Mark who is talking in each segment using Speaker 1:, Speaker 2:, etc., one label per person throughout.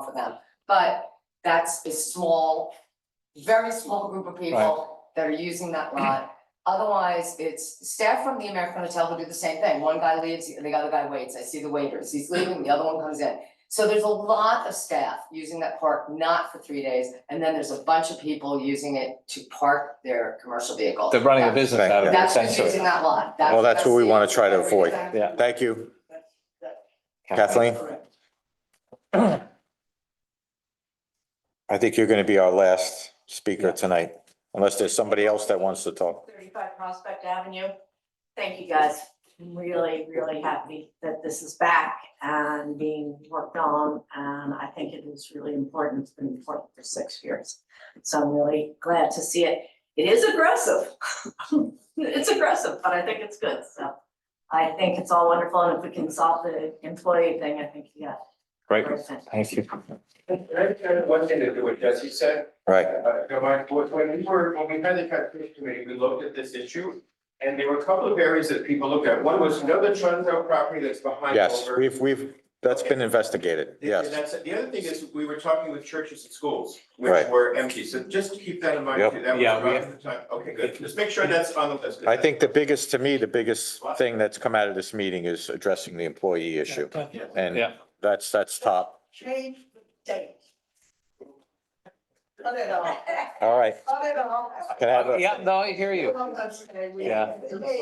Speaker 1: for them, but that's a small, very small group of people that are using that lot. Otherwise, it's staff from the American Hotel who do the same thing, one guy leaves, the other guy waits, I see the waiters, he's leaving, the other one comes in. So there's a lot of staff using that park, not for three days, and then there's a bunch of people using it to park their commercial vehicle.
Speaker 2: They're running a business out of it
Speaker 1: That's who's
Speaker 2: essentially.
Speaker 1: using that lot, that's.
Speaker 3: Well, that's what we
Speaker 1: the-
Speaker 3: wanna try to avoid.
Speaker 1: Exactly.
Speaker 2: Yeah.
Speaker 3: Thank you. Kathleen, I think you're going to be our last speaker tonight, unless there's somebody else that wants to talk.
Speaker 4: thirty-five Prospect Avenue. Thank you, guys. I'm really, really happy that this is back and being worked on, and I think it is really important. It's been important for six years. So I'm really glad to see it. It is aggressive. It's aggressive, but I think it's good, so. I think it's all wonderful, and if we can solve the employee thing, I think, yeah.
Speaker 2: Great,
Speaker 4: we're set.
Speaker 2: thank you.
Speaker 5: Can I add one thing to do what Jesse said?
Speaker 3: Right,
Speaker 5: Uh, don't mind, when when we were, when we had the transportation committee, we looked at this issue. And there were a couple of areas that people looked at. One was, you know, the Trunzo property that's behind
Speaker 3: yes,
Speaker 5: over.
Speaker 3: we've, we've, that's been investigated,
Speaker 5: The-
Speaker 3: yes.
Speaker 5: That's, the other thing is, we were talking with churches and schools, which
Speaker 3: Right.
Speaker 5: were empty. So just keep that in mind
Speaker 3: Yep.
Speaker 5: too. That was
Speaker 2: Yeah, we
Speaker 5: around the time. Okay, good. Just make sure that's on the list.
Speaker 3: I think the biggest, to me, the biggest thing that's come out of this meeting is addressing the employee issue.
Speaker 5: Yeah.
Speaker 3: And
Speaker 2: Yeah.
Speaker 3: that's, that's top.
Speaker 6: change the date. Cut it off,
Speaker 3: All right,
Speaker 6: cut it off.
Speaker 3: can I have a,
Speaker 2: Yeah, no, I hear you.
Speaker 6: Come on, say we-
Speaker 2: Yeah.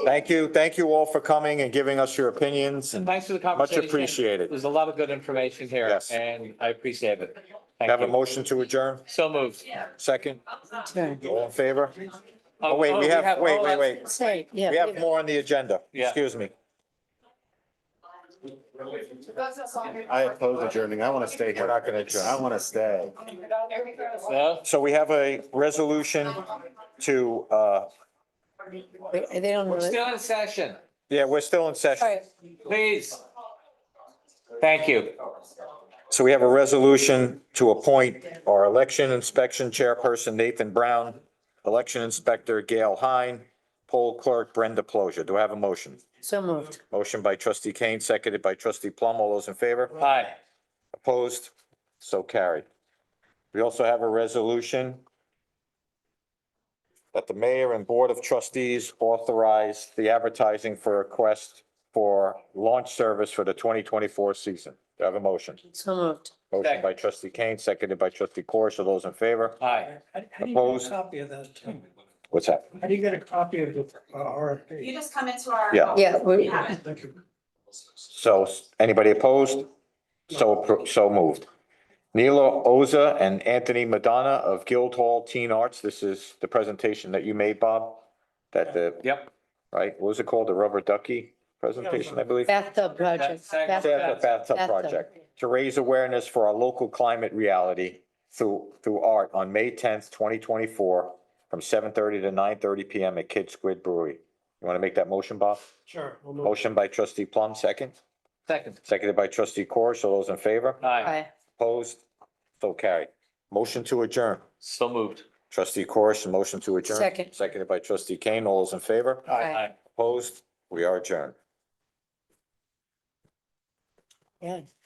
Speaker 3: thank you, thank you all for coming and giving us your opinions and
Speaker 2: Thanks for the
Speaker 3: much
Speaker 2: conversation.
Speaker 3: appreciated.
Speaker 2: There's a lot of good information here
Speaker 3: Yes.
Speaker 2: and I appreciate it. Thank
Speaker 3: Have a
Speaker 2: you.
Speaker 3: motion to adjourn,
Speaker 2: So moved.
Speaker 3: second? All in favor? Oh, wait,
Speaker 2: oh,
Speaker 3: we have, wait,
Speaker 2: oh,
Speaker 3: wait, wait.
Speaker 7: Say, yeah.
Speaker 3: We have more on the agenda,
Speaker 2: Yeah.
Speaker 3: excuse me.
Speaker 1: That's us all here.
Speaker 8: I oppose adjourning. I want to stay here.
Speaker 3: We're not gonna adjourn.
Speaker 8: I want to stay.
Speaker 2: No?
Speaker 3: So we have a resolution to, uh,
Speaker 7: They they don't
Speaker 2: We're
Speaker 7: really.
Speaker 2: still in session,
Speaker 3: yeah, we're still in
Speaker 7: All
Speaker 3: session.
Speaker 7: right,
Speaker 2: please. Thank you.
Speaker 5: Oh,
Speaker 3: So we have a resolution to appoint our election inspection chairperson Nathan Brown, election inspector Gail Hine, poll clerk Brenda Plosia. Do I have a motion?
Speaker 7: so moved.
Speaker 3: Motion by trustee Kane, seconded by trustee Plum. All those in favor?
Speaker 2: Hi.
Speaker 3: Opposed? So carried. We also have a resolution that the mayor and board of trustees authorize the advertising for a request for launch service for the twenty twenty-four season. Do I have a motion?
Speaker 7: So moved.
Speaker 3: Motion by trustee Kane, seconded by trustee Corish. Are those in favor?
Speaker 2: Hi.
Speaker 9: How do- how do you get
Speaker 3: Opposed?
Speaker 9: a copy of that? Tim?
Speaker 3: What's that?
Speaker 9: How do you get a copy of the uh,
Speaker 4: You
Speaker 9: RFP?
Speaker 4: just come into our.
Speaker 3: Yeah.
Speaker 7: Yeah, we,
Speaker 4: Yeah.
Speaker 9: Thank you.
Speaker 3: So anybody opposed? So, appro- so moved. Nilo Oza and Anthony Madonna of Guildhall Teen Arts. This is the presentation that you made, Bob, that the
Speaker 2: Yep.
Speaker 3: right? What was it called? The rubber ducky presentation, I believe?
Speaker 7: bathtub project.
Speaker 2: Second.
Speaker 3: They have the
Speaker 7: bathtub.
Speaker 3: bathtub
Speaker 7: Bathtub.
Speaker 3: project to raise awareness for our local climate reality through, through art on May tenth, twenty twenty-four from seven thirty to nine thirty PM at Kid Squid Brewery. You want to make that motion, Bob?
Speaker 9: Sure. we'll move.
Speaker 3: Motion by trustee Plum, second,
Speaker 2: Second.
Speaker 3: seconded by trustee Corish. All those in favor?
Speaker 2: Hi.
Speaker 7: Aye.
Speaker 3: Opposed? So carried. Motion to adjourn.
Speaker 2: So moved.
Speaker 3: Trustee Corish, motion to adjourn.
Speaker 7: Second.
Speaker 3: Seconded by trustee Kane. All those in favor?
Speaker 7: Aye.
Speaker 3: Opposed? We are adjourned.
Speaker 7: Yeah.